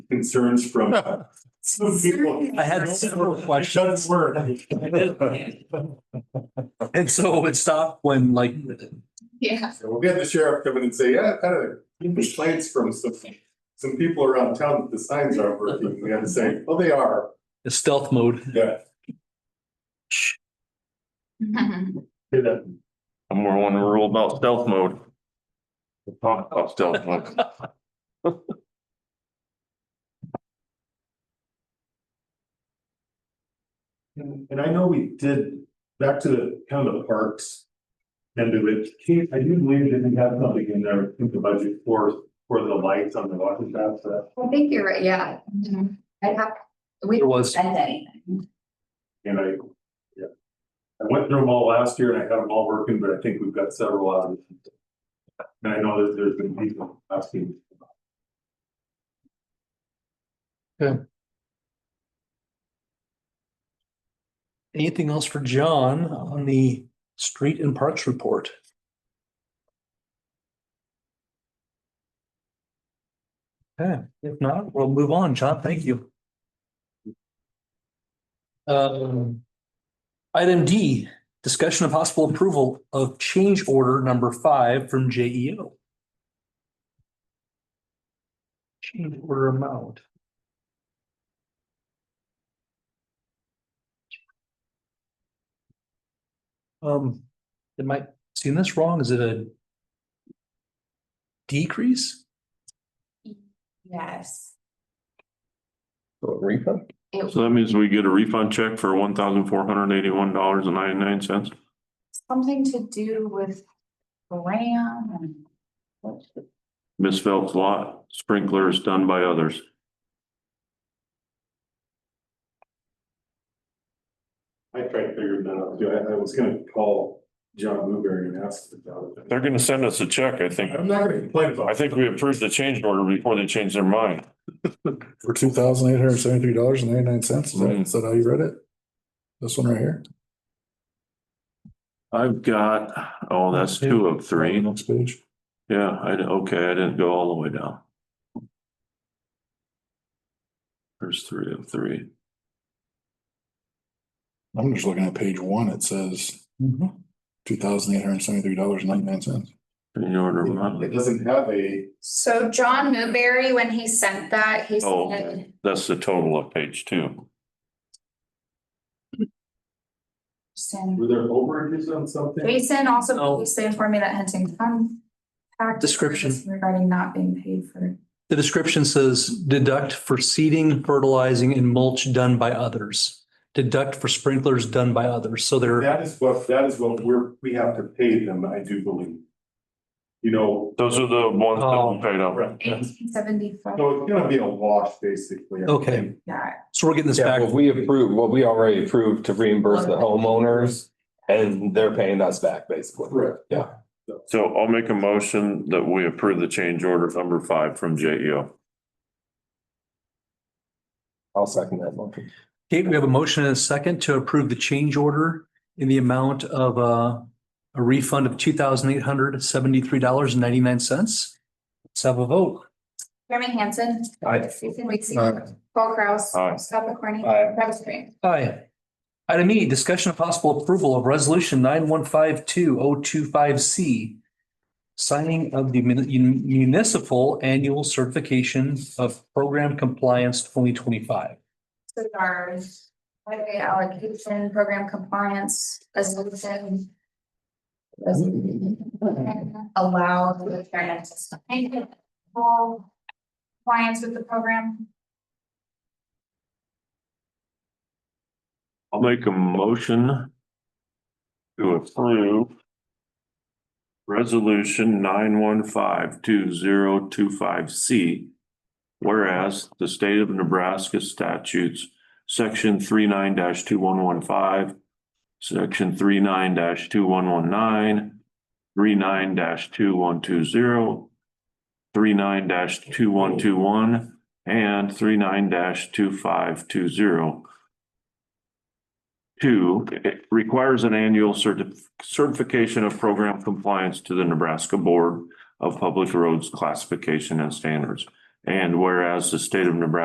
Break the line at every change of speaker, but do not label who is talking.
concerns from some people.
I had several questions.
Word.
And so it stopped when like,
Yeah.
So We'll get the sheriff coming and say, yeah, kind of complaints from some, some people around town that the signs aren't working. We had to say, well, they are.
the stealth mode.
Yeah.
Mm-hmm.
Do that.
I'm more on the rule about stealth mode. We'll Talk about stealth mode.
And and I know we did, back to the kind of the parks. And do it, Keith, I do believe that we have something in there, in the budget for, for the lights on the water tap, so,
I think you're right, yeah. Mhm. I'd have, we
There
don't
was,
spend anything.
and I. yeah. I went through them all last year and I had them all working, but I think we've got several out of it. And I know that there's been people asking.
anything else for John on the street and parks report? Okay, if not, we'll move on. John, thank you. Um, item D, discussion of possible approval of change order number five from J E O. Change order amount. Um, it might seem this wrong. Is it a decrease?
Yes.
So
It-
that means we get a refund check for one thousand four hundred eighty-one dollars and ninety-nine cents.
Something to do with RAM and.
Miss Phelps lot sprinkler is done by others.
I tried to figure that out, too. I, I was gonna call John Blueberry and ask about it.
They're gonna send us a check, I think.
I'm not gonna complain about.
I think we approved the change order before they changed their mind.
For two thousand eight hundred seventy-three dollars and ninety-nine cents, is that,
Mhm.
is that how you read it? This one right here?
I've got, oh, that's two of three.
Next page.
Yeah, I, okay, I didn't go all the way down. There's three of three.
I'm just looking at page one, it says two thousand eight hundred seventy-three dollars and ninety-nine cents.
Change order amount.
It doesn't have a,
So John Newberry, when he sent that, he
Oh,
said.
okay. that's the total of page two.
Jason-
were there overages on something?
Jason also
No.
previously informed me that Huntington. contacted
Description.
us Regarding not being paid for.
The description says deduct for seeding, fertilizing and mulch done by others. Deduct for sprinklers done by others. So they're,
That is what, that is what we're, we have to pay them, I do believe. You know,
Those are the ones that
Oh.
we paid out.
right, so
Eighteen seventy-five,
it's gonna be a wash, basically. I
Okay.
think.
yeah,
so we're getting this
Yeah,
back.
well, we approve, what we already approved to reimburse the homeowners and they're paying us back basically.
Correct.
Yeah.
So I'll make a motion that we approve the change order number five from E JEO.
I'll second that motion.
Kate, we have a motion and a second to approve the change order in the amount of uh, a refund of two thousand eight hundred seventy-three dollars and ninety-nine cents. Let's have a vote.
Jeremy Hansen.
Aye.
Susan Weeksy.
Aye.
Paul Kraus.
Aye.
Scott McCorney.
Aye.
Travis Green.
Aye. Item E, discussion of possible approval of resolution nine one five two oh two five C. Signing of the mun- municipal annual certification of program compliance twenty twenty five.
So our highway allocation, program compliance, resolution. Allow the chairman to sign all compliance with the program.
I'll make a motion to approve resolution nine one five two zero two five C. Whereas the state of Nebraska statutes, section three two one one five, section three two one one nine, three two one two zero, three two one two one, and three two five two zero. Two, it requires an annual certi- certification of program compliance to the Nebraska Board of Public Roads Classification and Standards. And whereas the state of Nebraska